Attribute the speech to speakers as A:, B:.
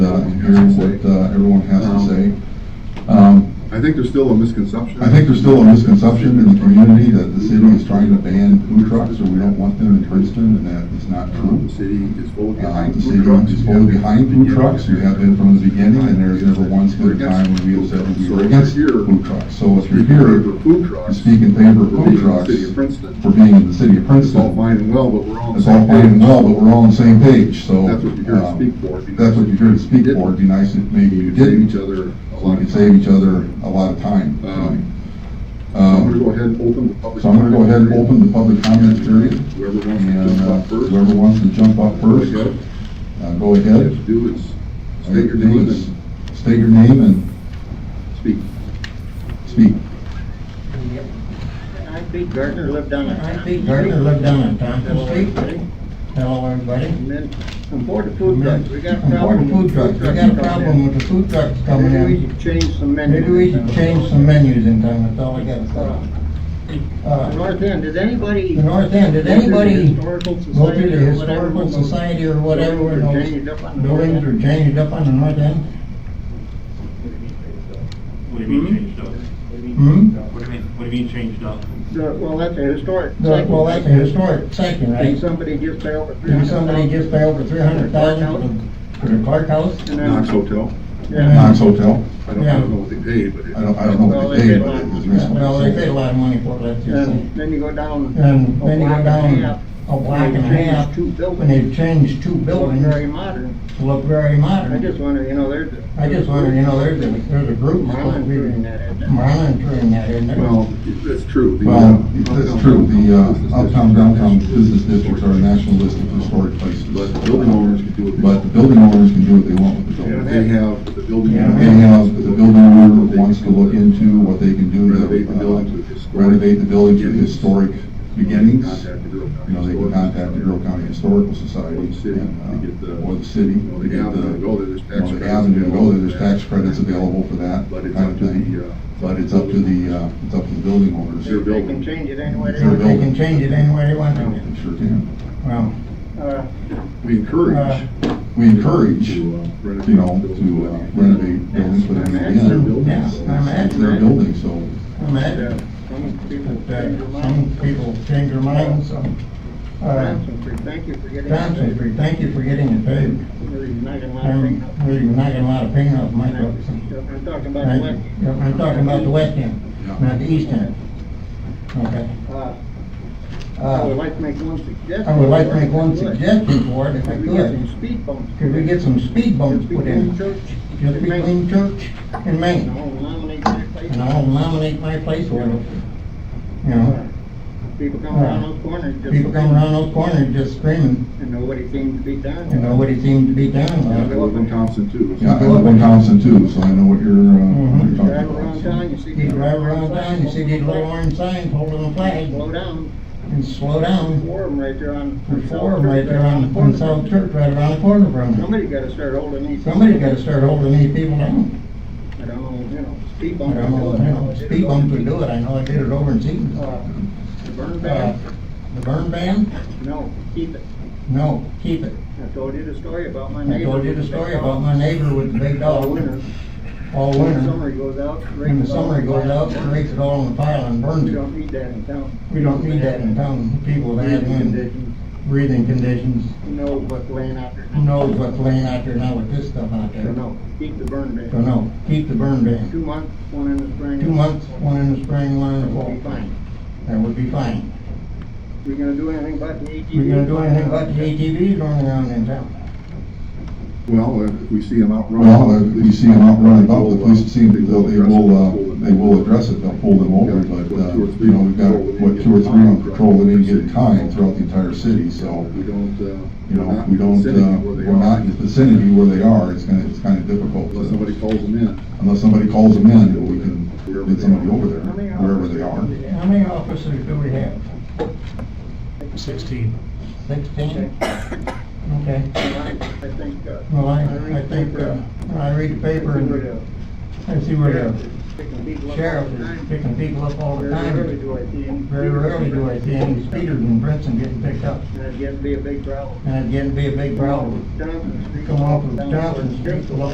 A: hearing say, uh, everyone has to say. Um,
B: I think there's still a misconception.
A: I think there's still a misconception in the community that the city is trying to ban food trucks or we don't want them in Princeton and that is not
B: Um,
A: true.
B: The city is full
A: Uh,
B: behind
A: the city
B: food trucks.
A: is fully behind food trucks, we have been from the beginning and there's never once been a time when we have said we were against food trucks. So if you're here
B: Speaking in favor of food
A: to
B: trucks.
A: speak in favor of
B: we're being
A: food
B: in the City
A: trucks
B: of Princeton.
A: for being in the city of
B: It's all
A: Princeton,
B: fine and well, but we're all on the
A: it's all
B: same
A: fine and
B: page.
A: well, but we're all on the same page, so.
B: That's what you're here to
A: um,
B: speak for.
A: If that's what you're here to speak for, it'd be nice if maybe you
B: We save
A: didn't,
B: each other a
A: so we
B: lot
A: could
B: of
A: save
B: time.
A: each other a lot of time.
B: Um, I'm gonna
A: Um,
B: go ahead and open the public.
A: So I'm gonna go ahead and
B: comment
A: open the public comment
B: period.
A: period,
B: Whoever wants to
A: and
B: jump
A: uh,
B: up first.
A: whoever wants to jump up first,
B: Go ahead.
A: uh, go
B: All you have
A: ahead.
B: to do is state your name and
A: State your name and
B: speak.
A: speak.
C: I, Pete Gardner, lived on a, I, Pete
D: Gardner lived down on Thompson Street.
C: And
D: Hello, everybody.
C: then, from board of food trucks, we got a
D: Important
C: problem.
D: food
C: with
D: trucks, we got a problem with the food trucks coming
C: Maybe we
D: in.
C: should change some menu.
D: Maybe we should change some menus in town, that's all I gotta
C: Uh,
D: say.
C: The
D: Uh,
C: North End, did anybody?
D: The North End, did anybody
C: Go to the
D: Go to the
C: Historical Society or
D: historical
C: whatever?
D: society or whatever, and
C: Changed
D: those
C: up on the North
D: buildings
C: End?
D: are changed up on the north end.
E: What do you mean changed up?
D: Hmm?
E: What do you mean, what do you mean changed up?
C: The- Well, that's a historic.
D: The- Well, that's a historic
C: And
D: section, right?
C: somebody just paid over three
D: Didn't
C: hundred.
D: somebody just pay over three hundred thousand for the Clark House?
B: Knox Hotel.
A: Knox Hotel,
B: I don't, I don't know what they paid, but. it-
A: I don't, I don't know what they paid, but it was recently.
D: Well, they paid a lot of money for it, let's just say.
C: And then you go down.
D: And
C: a
D: then you
C: block
D: go
C: and a half,
D: down a block and a
C: they changed
D: half,
C: Two
D: and
C: buildings,
D: they've changed two
C: building very
D: buildings
C: modern.
D: to look very
C: I
D: modern.
C: just wonder, you know, there's. a-
D: I just wonder, you know, there's a, there's a group supposed to
C: Monitoring
D: be
C: that, isn't it?
D: monitoring that, isn't there?
B: Well, that's true. The, uh,
A: Well, that's true, the uh, uptown, downtown business districts are a national list of historic places.
B: But the building owners can do what they
A: But the
B: want.
A: building owners can do what they want with the
B: And
A: building.
B: if they have, the building.
D: Yeah.
A: They have, the building owner wants to look into what they can do to.
B: Renovate the building to
A: uh,
B: historic
A: Renovate the building to
B: beginnings.
A: historic beginnings.
B: Contact the Bureau of
A: You know, they can
B: Historical
A: contact the Bureau
B: Society.
A: County Historical Society.
B: Or the city,
A: and,
B: they get
A: uh,
B: the-
A: Or the city.
B: you know, the
A: they get
B: avenue to go there, there's
A: you know,
B: tax
A: the
B: credits
A: avenue to go
B: available
A: there,
B: for
A: there's
B: that.
A: tax credits available for that
B: But it's
A: kind
B: up
A: of
B: to
A: thing.
B: the, uh.
A: But it's up to the, uh, it's up to the building owners.
B: Sure.
C: They they can change it any way they
A: Sure.
C: want.
D: They can change it any way they want to.
A: They Sure can.
D: Well,
C: Uh,
B: We encourage.
D: Uh,
A: We encourage, you
B: to, uh, renovate
A: know,
B: buildings.
A: to uh, renovate buildings, but in the
C: It's their
A: end,
B: building.
D: yeah, I'm
A: it's their
D: at,
A: building, so.
D: I'm
C: yeah,
D: at,
C: uh, some people change
D: but
C: their
D: uh, some
C: mind.
D: people change their minds, so. Uh,
C: Johnson Street, thank you for getting. that.
D: Johnson Street, thank you for getting it paved.
C: Really not gonna lie,
D: I'm
C: bring up-
D: really knocking a lot of pain off my books.
C: I'm talking about the
D: Right.
C: left.
D: Yeah, I'm talking about the west end, not the east end. Okay.
C: Uh, I would
D: Uh,
C: like to make one suggestion.
D: I would like to make one
C: If I could.
D: suggestion for it, if I
C: If we get
D: could.
C: some speed bumps.
D: Could we get some speed bumps put in,
C: Church.
D: just between Church and Main?
C: No, nominate that place.
D: And I'll nominate my place for it. You know,
C: Uh, People come around those corners. just-
D: people come around those corners just screaming,
C: And nobody seems to be done.
D: and nobody seems to be down
B: Yeah,
D: about
B: I
D: it.
B: live in Thompson too.
A: Uh, Yeah, I live in Thompson too, so I know what you're, uh, what
D: Mhm.
A: you're
C: Drive
A: talking about.
C: around
A: so.
C: town, you see.
D: You drive around town, you see these little orange signs holding the flag,
C: Slow down,
D: and slow down.
C: forum right there on.
D: There's four of them right there on, on South Church, right around the corner from them.
C: Somebody gotta start holding these.
D: Somebody's gotta start holding these people down.
C: I don't know, you know, speed
D: I
C: bump.
D: don't know, you know, speed bumps would do it, I know I did it over in Seaton.
C: Uh, The burn
D: Uh,
C: ban,
D: The burn ban?
C: no, keep it.
D: No, keep it.
C: I told you the story about my
D: I
C: neighbor.
D: told you the
C: with
D: story
C: big
D: about
C: dog.
D: my neighbor with the big
C: All
D: dog.
C: winter,
D: All
C: when the
D: winter.
C: summer he goes out. rakes
D: When the
C: it all
D: summer
C: in
D: goes
C: the
D: out,
C: pile.
D: it rakes it all in the pile and burns
C: We
D: it.
C: don't need that in town.
D: We don't need that in town. People that have
C: Breathing
D: had
C: conditions,
D: breathing conditions,
C: who knows what's laying out there.
D: who knows what's laying out there now with this stuff out there.
C: Don't know, keep the burn ban.
D: Don't know. Keep the burn ban.
C: Two months, one in the spring.
D: Two months, one in the spring, one in the
C: We'll
D: fall.
C: be fine.
D: That would be fine.
C: We gonna do anything about the ATV?
D: We're gonna do anything about the ATVs running around in town.
B: Well, uh, if we see them out running.
A: Well, if we see them out running about, the police see them, they'll, they will, uh, they will address it, they'll pull them over, but, uh, you know, we've got, what, two or three on patrol at any given time throughout the entire city, so,
B: We don't, uh.
A: you know,
B: we're
A: if
B: not
A: we don't,
B: sending
A: uh,
B: them where they
A: we're
B: are
A: not in the vicinity where they are, it's gonna, it's kinda difficult. uh,
B: Unless somebody calls them in.
A: Unless somebody calls them in, we can get somebody over there,
C: How many
A: wherever they are.
C: hours do we have?
D: How many officers do we have?
E: Sixteen.
D: Sixteen? Okay.
C: I I think, uh.
D: Well, I,
C: read
D: I
C: the
D: think,
C: paper,
D: uh, I read the paper and I see where the
C: the
D: sheriff is picking people up all the
C: Very rarely
D: time.
C: do I see any.
D: Very rarely do I see any speeders in Princeton getting picked up.
C: And it'd get to be a big problem.
D: And it'd get to be a big problem.
C: Down the street.
D: Come off of
C: down the
D: Johnson Street,
C: street.
D: look